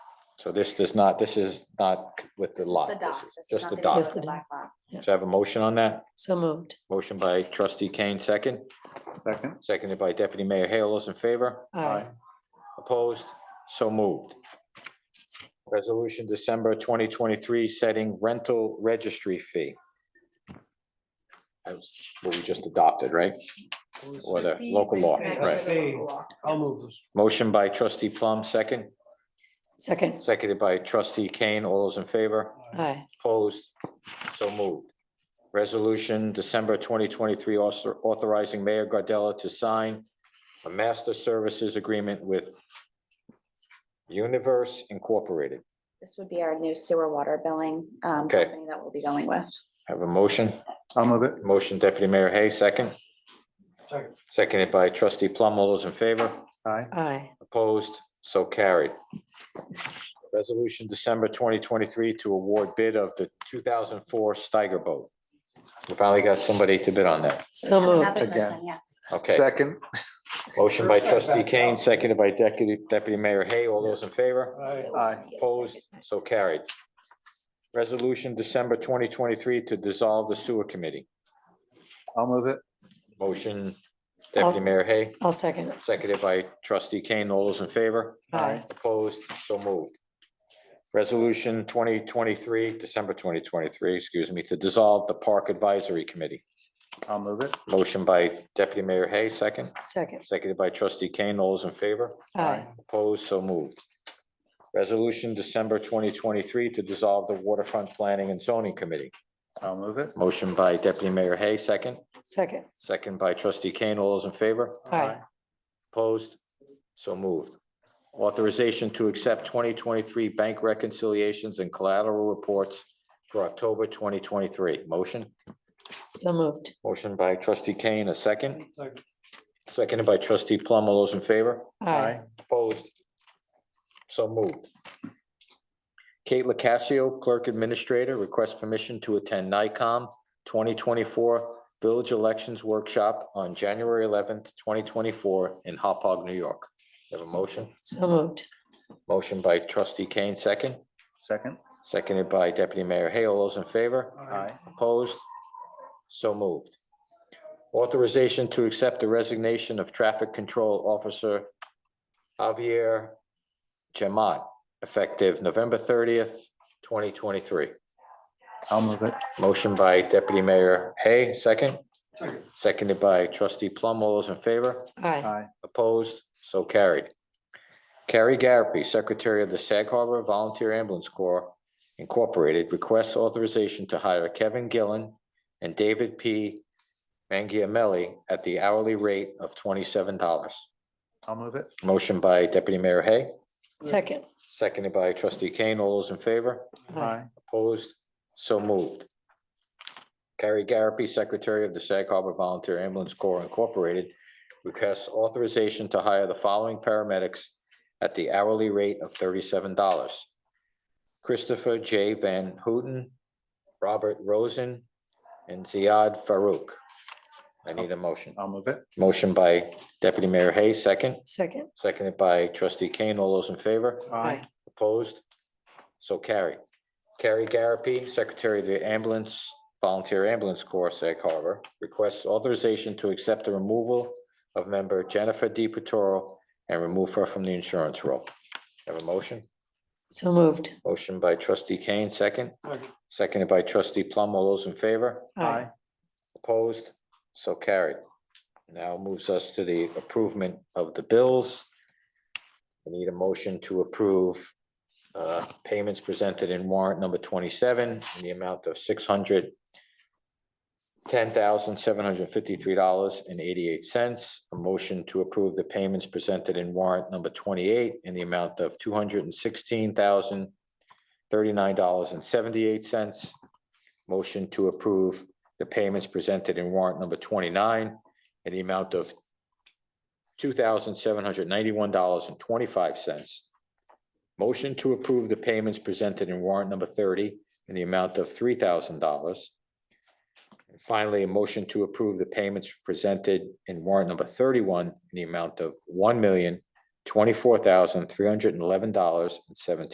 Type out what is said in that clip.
So this does not, this is not with the This is lot, dock. this is This is just the nothing to do dock. with the black lot. So I have a motion on that? So moved. Motion by trustee Kane, second, Second? seconded by deputy mayor Hale. Those in favor? Aye. Opposed? So moved. Resolution December twenty twenty-three, setting rental registry fee. That's what we just adopted, right? Or the local law, Fees and right? the local law. I'll move this. Motion by trustee Plum, second, Second. seconded by trustee Kane. All those in favor? Aye. Opposed? So moved. Resolution December twenty twenty-three, authorizing Mayor Gardella to sign a master services agreement with Universe Incorporated. This would be our new sewer water billing um, Okay. company that we'll be going with. Have a motion. I'll move it. Motion deputy mayor Hay, second. Second. Seconded by trustee Plum. All those in favor? Aye. Aye. Opposed? So carried. Resolution December twenty twenty-three to award bid of the two thousand four Steiger boat. We finally got somebody to bid on that. So moved. Another Again. person, yes. Okay. Second? Motion by trustee Kane, seconded by deputy, deputy mayor Hay. All those in favor? Aye. Aye. Opposed? So carried. Resolution December twenty twenty-three to dissolve the sewer committee. I'll move it. Motion deputy mayor Hay, I'll second. seconded by trustee Kane. All those in favor? Aye. Opposed, so moved. Resolution twenty twenty-three, December twenty twenty-three, excuse me, to dissolve the Park Advisory Committee. I'll move it. Motion by Deputy Mayor Hay, second, Second. seconded by Trustee Kane. All those in favor? Aye. Opposed, so moved. Resolution December twenty twenty-three to dissolve the Waterfront Planning and Zoning Committee. I'll move it. Motion by Deputy Mayor Hay, second, Second. second by Trustee Kane. All those in favor? Aye. Opposed? So moved. Authorization to accept twenty twenty-three bank reconciliations and collateral reports for October twenty twenty-three. Motion? So moved. Motion by trustee Kane, a second? Seconded by trustee Plum. All those in favor? Aye. Opposed? So moved. Kate Lacasio, Clerk Administrator, requests permission to attend NICOM twenty twenty-four Village Elections Workshop on January eleventh, twenty twenty-four in Hopog, New York. Have a motion? So moved. Motion by trustee Kane, second, Second? seconded by deputy mayor Hay. All those in favor? Aye. Opposed? So moved. Authorization to accept the resignation of traffic control officer Javier Jamat, effective November thirtieth, twenty twenty-three. I'll move it. Motion by deputy mayor Hay, second, seconded by trustee Plum. All those in favor? Aye. Aye. Opposed? So carried. Carrie Garapi, Secretary of the Sag Harbor Volunteer Ambulance Corps Incorporated, requests authorization to hire Kevin Gillen and David P. Mangiamelli at the hourly rate of twenty-seven dollars. I'll move it. Motion by Deputy Mayor Hay, Second. seconded by Trustee Kane. All those in favor? Aye. Opposed? So moved. Carrie Garapi, Secretary of the Sag Harbor Volunteer Ambulance Corps Incorporated, requests authorization to hire the following paramedics at the hourly rate of thirty-seven dollars. Christopher J. Van Houten, Robert Rosen, and Ziad Farouk. I need a motion. I'll move it. Motion by Deputy Mayor Hay, second, Second. seconded by Trustee Kane. All those in favor? Aye. Opposed? So carry. Carrie Garapi, Secretary of the Ambulance, Volunteer Ambulance Corps, Sag Harbor, requests authorization to accept the removal of member Jennifer D. Petoro and remove her from the insurance roll. Have a motion? So moved. Motion by trustee Kane, second. Second. Seconded by trustee Plum. All those in favor? Aye. Opposed? So carried. Now moves us to the approvement of the bills. We need a motion to approve uh, payments presented in warrant number twenty-seven in the amount of six hundred ten thousand seven hundred fifty-three dollars and eighty-eight cents. A motion to approve the payments presented in warrant number twenty-eight in the amount of two hundred and sixteen thousand thirty-nine dollars and seventy-eight cents. Motion to approve the payments presented in warrant number twenty-nine in the amount of two thousand seven hundred ninety-one dollars and twenty-five cents. Motion to approve the payments presented in warrant number thirty in the amount of three thousand dollars. And Finally, a motion to approve the payments presented in warrant number thirty-one in the amount of one million twenty-four thousand three hundred and eleven dollars and seventeen